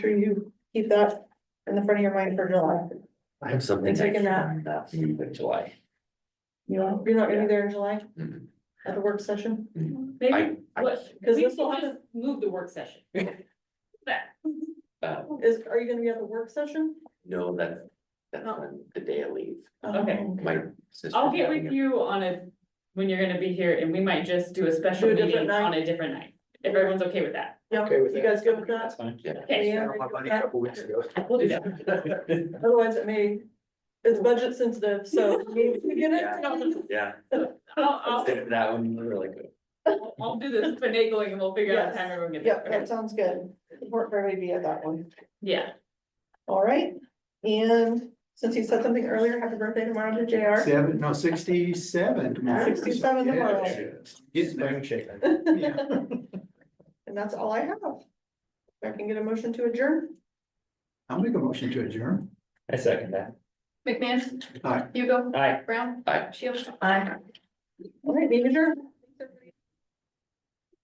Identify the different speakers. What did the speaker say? Speaker 1: sure you keep that in the front of your mind for July.
Speaker 2: I have something.
Speaker 1: It's like in
Speaker 2: next- next week of July.
Speaker 1: You know, you're not gonna be there in July
Speaker 2: Mhm.
Speaker 1: at the work session?
Speaker 2: I-
Speaker 3: Maybe,
Speaker 2: I-
Speaker 3: what,
Speaker 1: Cause this
Speaker 3: we
Speaker 1: will
Speaker 3: still
Speaker 1: have,
Speaker 3: just move the work session. That,
Speaker 2: Uh,
Speaker 1: is, are you gonna be at the work session?
Speaker 2: no, that, that's
Speaker 3: Oh.
Speaker 2: on the day I leave.
Speaker 3: Okay.
Speaker 1: Um,
Speaker 2: My sister.
Speaker 3: I'll get with you on a, when you're gonna be here, and we might just do a special
Speaker 1: Do a different
Speaker 3: meeting
Speaker 1: night.
Speaker 3: on a different night, if everyone's okay with that.
Speaker 1: Yeah,
Speaker 4: Okay with
Speaker 1: you
Speaker 4: that.
Speaker 1: guys good with that?
Speaker 4: fine.
Speaker 2: Yeah.
Speaker 3: Okay,
Speaker 1: Yeah.
Speaker 4: I my buddy a couple weeks ago.
Speaker 3: we'll do that.
Speaker 1: Otherwise it may, it's budget sensitive, so. we we get it.
Speaker 2: Yeah,
Speaker 3: I'll,
Speaker 2: Stick to that one, you were like,
Speaker 3: I'll, I'll do this finagling and we'll figure out the time everyone gets.
Speaker 1: Yep,
Speaker 3: there.
Speaker 1: that sounds good. Work for be at that one.
Speaker 3: Yeah,
Speaker 1: All right, and since you said something earlier, happy birthday tomorrow to JR.
Speaker 4: Seven, no, sixty-seven. tomorrow.
Speaker 1: 67 tomorrow.
Speaker 4: Yeah, Getting there. Yeah.
Speaker 1: And that's all I have. If I can get a motion to adjourn.
Speaker 4: I'll make a motion to adjourn. Uh,
Speaker 2: I second that.
Speaker 5: McMahon.
Speaker 4: Aye.
Speaker 5: Hugo.
Speaker 2: Aye.
Speaker 5: Brown.
Speaker 2: Aye.
Speaker 5: Shields. Aye.
Speaker 1: All right, meeting adjourned.